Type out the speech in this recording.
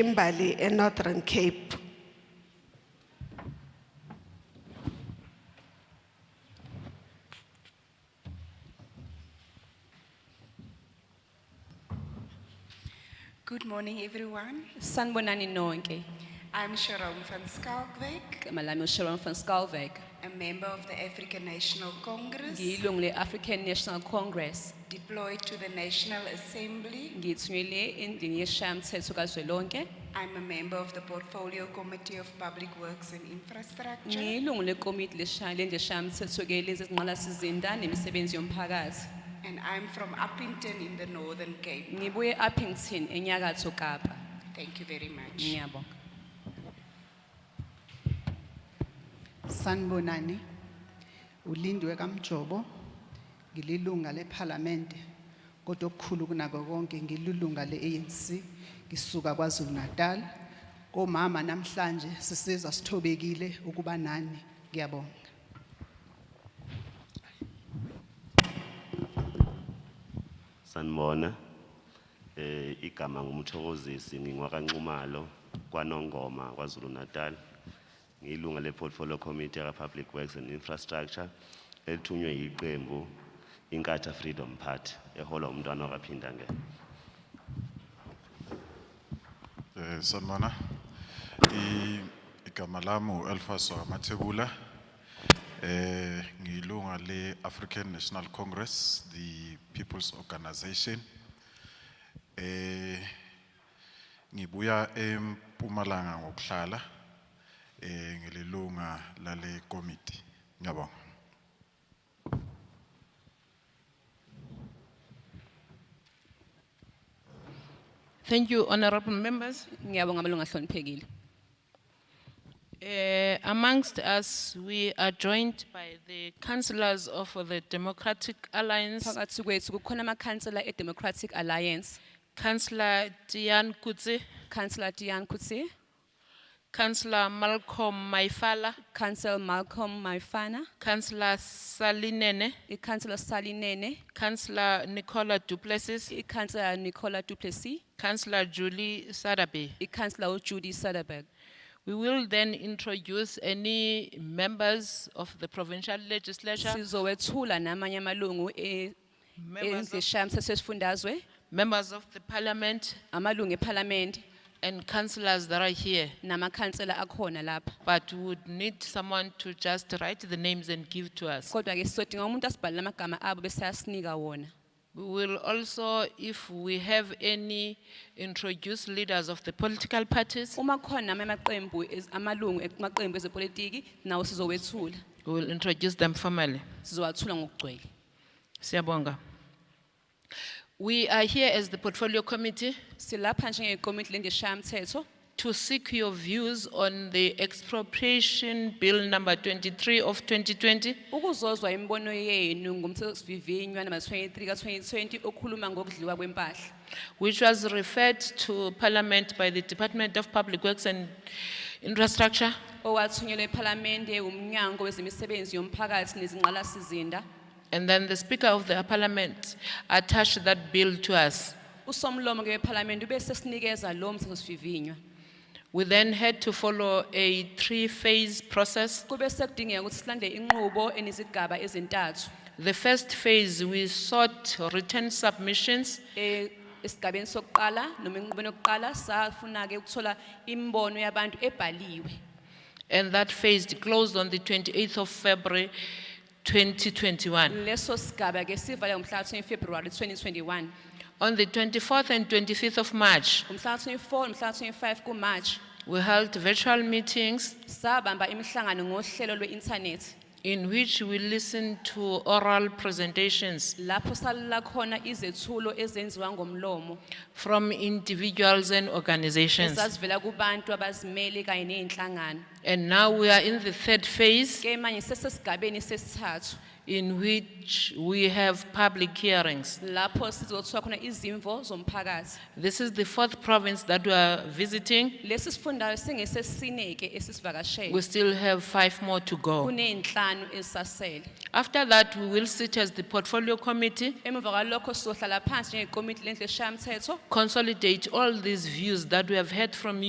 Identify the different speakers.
Speaker 1: Kimberley e Northern Cape.
Speaker 2: Good morning, everyone.
Speaker 3: Sanibonani nonke.
Speaker 2: I'm Sharon van Skalkwijk,
Speaker 3: Igama lami uSharon van Skalwyk.
Speaker 2: a member of the African National Congress,
Speaker 3: Ngiyilungu le-African National Congress.
Speaker 2: deployed to the National Assembly.
Speaker 3: Ngithunyelwe endlini yeshayamithetho kazwelonke.
Speaker 2: I'm a member of the Portfolio Committee of Public Works and Infrastructure,
Speaker 3: Ngiyilungu lekomiti leshaya lendlu eshayamithetho-ke lezi ezinqalasizinda nemisebenzi yomphakathi.
Speaker 2: and I'm from Uppington in the Northern Cape.
Speaker 3: Ngibuye e-Uppington enyakatho Kapa.
Speaker 2: Thank you very much.
Speaker 3: Ngiyabonga.
Speaker 4: Sanbonani ulindwe kaMjobo ngililunga leParliament kodwa okukhulu kunako konke ngilulunga leANC ngisuka kwaZulu Natal komama namhlanje sisizwa sithobekile ukuba nani ngiyabonga
Speaker 5: Sanibona eh igama ngumthokozisi ngingwakanxumalo kwanongoma kwaZulu Natal ngilunga leportfolio committee ka public works and infrastructure elithunywe yiqembu inkatha freedom party eholwa umntwana wakaphinda ngeke
Speaker 6: Eh sanibona. I igama lami uAlphaso Mathebula. Eh ngilunga le African National Congress, the People's Organization. Eh ngibuya eMpumalanga ngokuhlala. Eh ngililunga lale committee. Ngiyabonga.
Speaker 7: Thank you, honorable members.
Speaker 3: Ngiyabonga amalungu ahloniphekile.
Speaker 7: Eh, amongst us, we are joined by the councillors of the Democratic Alliance,
Speaker 3: Phakathi kwethu kukhona amakhansela e-Democratic Alliance,
Speaker 7: Councillor Tian Kutze,
Speaker 3: Councillor Diane Kutsi,
Speaker 7: Councillor Malcolm Maifala,
Speaker 3: Councillor Malcolm Maifana,
Speaker 7: Councillor Salinene,
Speaker 3: i-Councillor Salinene,
Speaker 7: Councillor Nicola Duplessis,
Speaker 3: i-Councillor Nicola Duplessis,
Speaker 7: Councillor Julie Sadabe.
Speaker 3: i-Councillor uJudy Sutherberg.
Speaker 7: We will then introduce any members of the provincial legislature,
Speaker 3: Sizowethula namanye amalungu e-
Speaker 7: members of,
Speaker 3: ezishayamthetho esifundazwe,
Speaker 7: members of the parliament,
Speaker 3: amalungu eParliament
Speaker 7: and councillors that are here.
Speaker 3: namakhansela akhona lapha.
Speaker 7: But we would need someone to just write the names and give to us.
Speaker 3: Kodwa ke sizodinga umuntu asibhalele amagama abo bese ayasinika wona.
Speaker 7: We will also, if we have any, introduce leaders of the political parties.
Speaker 3: Uma khona namanye amaqembu ez- amalungu e-, amaqembu ezepolitiki nawo sizowethula.
Speaker 7: We will introduce them formally.
Speaker 3: Sizowathula ngokugcwele.
Speaker 7: Siyabonga. We are here as the portfolio committee
Speaker 3: Silapha njengekomiti lendishayamthetho
Speaker 7: to seek your views on the expropriation bill number twenty-three of twenty twenty.
Speaker 3: ukuzozwa imibono yenu ngomthethosivivinywa namba 23 ka-2020 okhuluma ngokudliwa kwempahla.
Speaker 7: which was referred to Parliament by the Department of Public Works and Infrastructure.
Speaker 3: owathunyelwe ephalamende umnyango wezemisebenzi yomphakathi nezingqalasizinda
Speaker 7: And then the Speaker of the Parliament attached that bill to us.
Speaker 3: usomlomo ke wephalamende ube sesinikeza lo mthethosivivinywa
Speaker 7: We then had to follow a three-phase process.
Speaker 3: kube sekudingeka ukuthi silandele inqubo enezigaba ezintathu
Speaker 7: The first phase, we sought written submissions
Speaker 3: Eh, esigabeni sokuqala noma enqubeni yokuqala safuna-ke ukuthola imibono yabantu ebhaliwe
Speaker 7: and that phase closed on the 28th of February 2021.
Speaker 3: leso sigaba ke sivale ngomhlaka 20 February 2021
Speaker 7: On the 24th and 25th of March,
Speaker 3: ngomhlaka 24 nomhlaka 25 kuMarch
Speaker 7: we held virtual meetings
Speaker 3: sabamba imihlangano ngohlelo lwe-inthanethi
Speaker 7: in which we listen to oral presentations
Speaker 3: lapho salala khona izethulo ezenziwa ngomlomo
Speaker 7: from individuals and organizations.
Speaker 3: ezazivela kubantu abazimele kanye ney'nhlangano
Speaker 7: And now we are in the third phase,
Speaker 3: ke manje sesesigabeni sesithathu
Speaker 7: in which we have public hearings.
Speaker 3: lapho sizothola khona izimvo zomphakathi
Speaker 7: This is the fourth province that we are visiting.
Speaker 3: lesi sifundayo singesesineke esisivakashele
Speaker 7: We still have five more to go.
Speaker 3: kuney'nhlanu ezisasele
Speaker 7: After that, we will sit as the portfolio committee,
Speaker 3: emva kwalokho sizohlala phansi njengekomiti lendlu eshayamthetho
Speaker 7: consolidate all these views that we have heard from you.